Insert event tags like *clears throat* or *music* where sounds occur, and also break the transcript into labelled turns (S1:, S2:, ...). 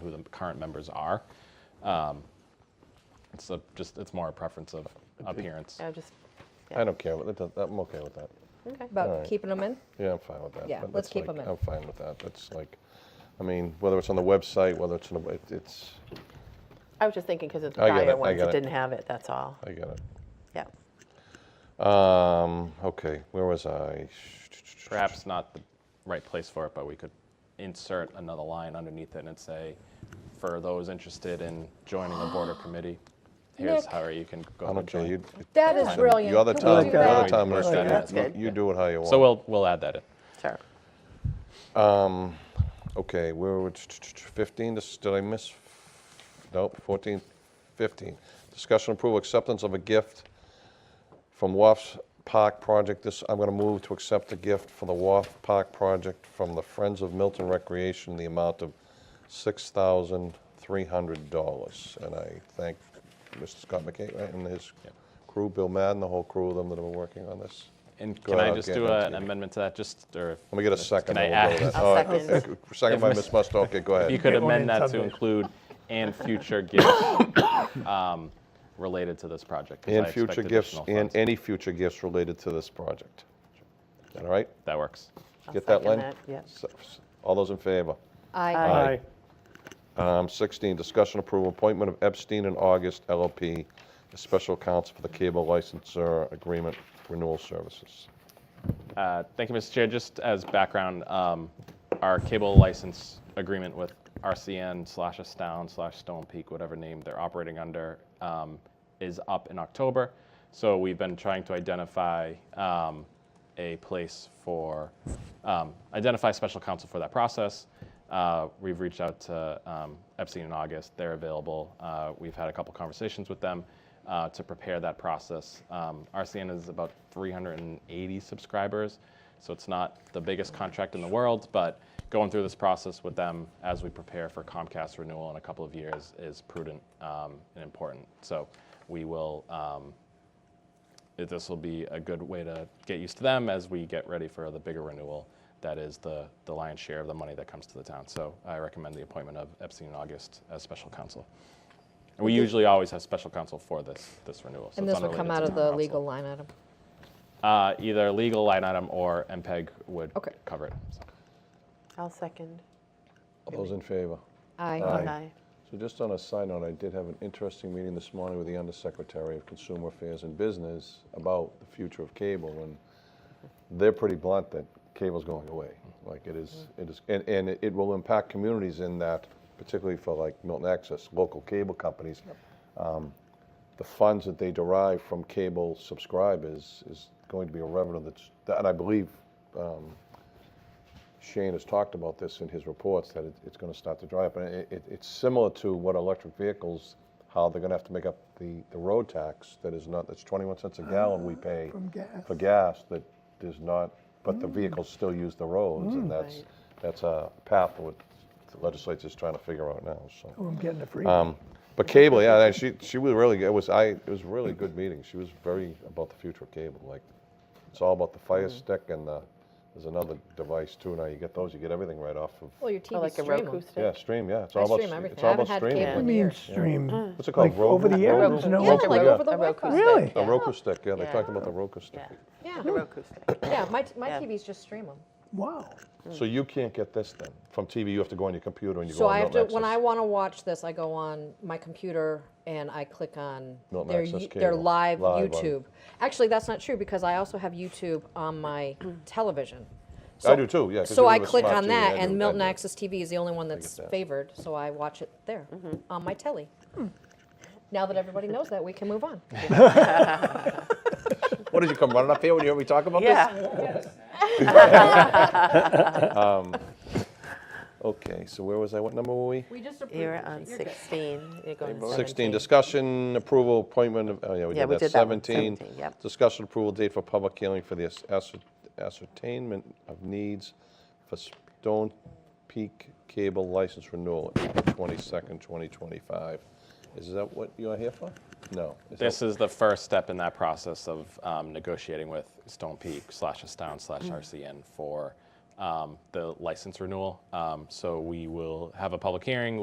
S1: who the current members are. Um, It's a- just, it's more a preference of appearance.
S2: I just,
S3: I don't care. That does- I'm okay with that.
S2: okay.
S3: All
S4: About
S3: right.
S4: keeping them in?
S3: Yeah, I'm fine with that.
S4: Yeah,
S3: But
S4: let's
S3: that's
S4: keep
S3: like-
S4: 'em in.
S3: I'm fine with that. That's like, I mean, whether it's on the website, whether it's on the, it- it's,
S2: I was just thinking because it's
S3: I get it, I
S2: prior ones
S3: get
S2: that
S3: it.
S2: didn't have it, that's all.
S3: I get it.
S2: Yeah.
S3: Um, okay, where was I?
S1: Perhaps not the right place for it, but we could insert another line underneath it and say, for those interested in joining the board or committee, here's
S4: Nick.
S1: how you can go.
S3: I
S1: to
S3: don't care.
S1: join."
S3: You,
S4: That is
S1: Fine.
S4: brilliant.
S3: you're the
S4: Can we
S3: town,
S4: do
S3: you're the
S4: that?
S3: town
S1: Work
S3: minister.
S1: that
S3: You-
S1: out.
S3: you- You do it how you want.
S1: So we'll, we'll add that in.
S2: Sure.
S3: Okay, where were, 15, This- did I miss? Nope, 14, 15. Discussion approval, acceptance of a gift from WAF's Park Project. This, I'm going to move to accept the gift for the WAF Park Project from the Friends of Milton Recreation, in the amount of $6,300. And I thank Mr. Scott McKay right, and his crew, Bill Madden, the whole crew of them that have been working on this.
S1: And
S3: Go
S1: can I
S3: ahead,
S1: just
S3: get
S1: do
S3: into
S1: a-
S3: it.
S1: an amendment to that, just, or?
S3: Let me get a second.
S1: Can I
S3: and we'll go
S1: *laughs* add?
S3: with that.
S2: I'll
S3: All right,
S2: second.
S3: uh, Second by
S1: If
S3: Ms. Musto, okay, go
S1: *laughs*
S3: ahead.
S1: You could
S5: Get one
S1: amend
S5: in
S1: that to
S5: Sunday.
S1: include
S3: *laughs*
S1: and future gifts um, related to this project. 'cause I
S3: And
S1: expect
S3: future gifts,
S1: additional
S3: and
S1: funds.
S3: any future gifts related to this project. All right?
S1: That works.
S2: I'll
S3: Get that,
S2: second
S3: Len?
S2: that, yeah.
S3: S- s- All those in favor?
S4: I,
S3: Aye. Um, 16, discussion approval, appointment of Epstein and August LLP as special counsel for the cable licensor agreement renewal services.
S1: Uh, Thank you, Mr. Chair. Just as background, um, our cable license agreement with RCN slash Astound slash Stone Peak, whatever name they're operating under, um, is up in October. So we've been trying to identify um, a place for, um, identify special counsel for that process. Uh, We've reached out to um, Epstein and August. They're available. Uh, We've had a couple conversations with them uh, to prepare that process. Um, RCN is about 380 subscribers, so it's not the biggest contract in the world, but going through this process with them as we prepare for Comcast renewal in a couple of years is prudent um, and important. So we will, um, it- this will be a good way to get used to them as we get ready for the bigger renewal. That is the, the lion's share of the money that comes to the town. So I recommend the appointment of Epstein and August as special counsel. And we usually always have special counsel for this, this renewal. so
S4: and
S1: it's
S4: this will come
S1: unrelated to town
S4: out of the
S1: council.
S4: legal line item.
S1: Uh, either legal line item or MPEG would
S4: Okay.
S1: cover it. so.
S2: I'll second.
S3: All those in favor?
S4: Aye.
S3: Aye.
S2: Aye.
S3: So just on a side note, I did have an interesting meeting this morning with the Undersecretary of Consumer Affairs and Business about the future of cable, and they're pretty blunt that cable's going away. Like it is, it is, and, and it- it will impact communities in that, particularly for like Milton Access, local cable companies. um, The funds that they derive from cable subscribers is going to be a revenue that's, and I believe um, Shane has talked about this in his reports, that it- it's going to start to dry up. And it- it- it's similar to what electric vehicles, how they're going to have to make up the the road tax that is not, that's 21 cents a gallon we pay
S5: From gas.
S3: for gas that is not, but the vehicles still use the roads. And that's,
S2: Right.
S3: that's a path what the legislature's trying to figure out now, so.
S5: Oh, I'm getting a free.
S3: Um, But cable, yeah, and she, she was really, it was, I, it was a really good meeting. She was very about the future of cable, like, it's all about the Fire
S4: Mm-hmm.
S3: Stick and the, there's another device too. Now you get those, you get everything right off of
S4: Well, your
S2: Oh,
S4: TV
S2: like a
S4: stream.
S2: Roku
S4: 'em.
S2: stick?
S3: yeah, stream, yeah. It's
S4: I
S3: all about,
S4: stream
S3: stre-
S4: everything.
S3: it's
S4: I
S3: all
S4: haven't
S3: about
S4: had
S3: streaming.
S5: What do you
S4: cable.
S5: mean
S4: years.
S5: stream?
S3: What's it called?
S5: Like
S3: Roku-
S5: over the air?
S3: Roku-
S5: There's no-
S4: Yeah, like
S3: yeah.
S4: over the
S2: A Roku
S4: Wi-Fi.
S2: stick.
S5: Really?
S3: A
S2: yeah.
S3: Roku stick, yeah, they
S2: Yeah.
S3: talked about the Roku stick.
S2: Yeah,
S4: Yeah,
S2: the Roku stick.
S4: yeah, my, t- my
S2: Yeah.
S4: TVs just stream them.
S5: Wow.
S3: So you can't get this then? From TV, you have to go on your computer and you go
S4: So
S3: on
S4: I have
S3: Milton
S4: to, when I
S3: Access.
S4: want to watch this, I go on my computer and I click on
S3: Milton
S4: their,
S3: Access
S4: Yo- their
S3: Cable.
S4: live
S3: Live on-
S4: YouTube. Actually, that's not true because I also have YouTube on
S3: *clears throat*
S4: my television.
S3: I do too, yeah. 'cause
S4: So
S3: we
S4: I
S3: have a
S4: click
S3: smart
S4: on
S3: TV,
S4: that
S3: I do,
S4: and
S3: I
S4: Milton
S3: do.
S4: Access TV is the only one that's
S3: that.
S4: favored, so I watch it there on my telly. Now that everybody knows that, we can
S3: *laughs*
S4: move on.
S3: What, did you come running up here when you heard me talk about this?
S2: Yeah,
S3: Okay, so where was I, what number were we? *laughs*
S4: We just
S2: you're on 16. You're going to
S3: 16,
S2: 17.
S3: discussion, approval, appointment of, oh yeah, we
S2: Yeah,
S3: did
S2: we
S3: that.
S2: did that one,
S3: 17,
S2: 17, yep.
S3: discussion approval date for public hearing for the ass- ascer- ascertainment of needs for Stone Peak Cable License Renewal, April 22nd, 2025. Is that what you are here for? No. is that-
S1: This is the first step in that process of um, negotiating with Stone Peak slash Astound slash
S4: Mm.
S1: RCN for um, the license renewal. Um, So we will have a public hearing,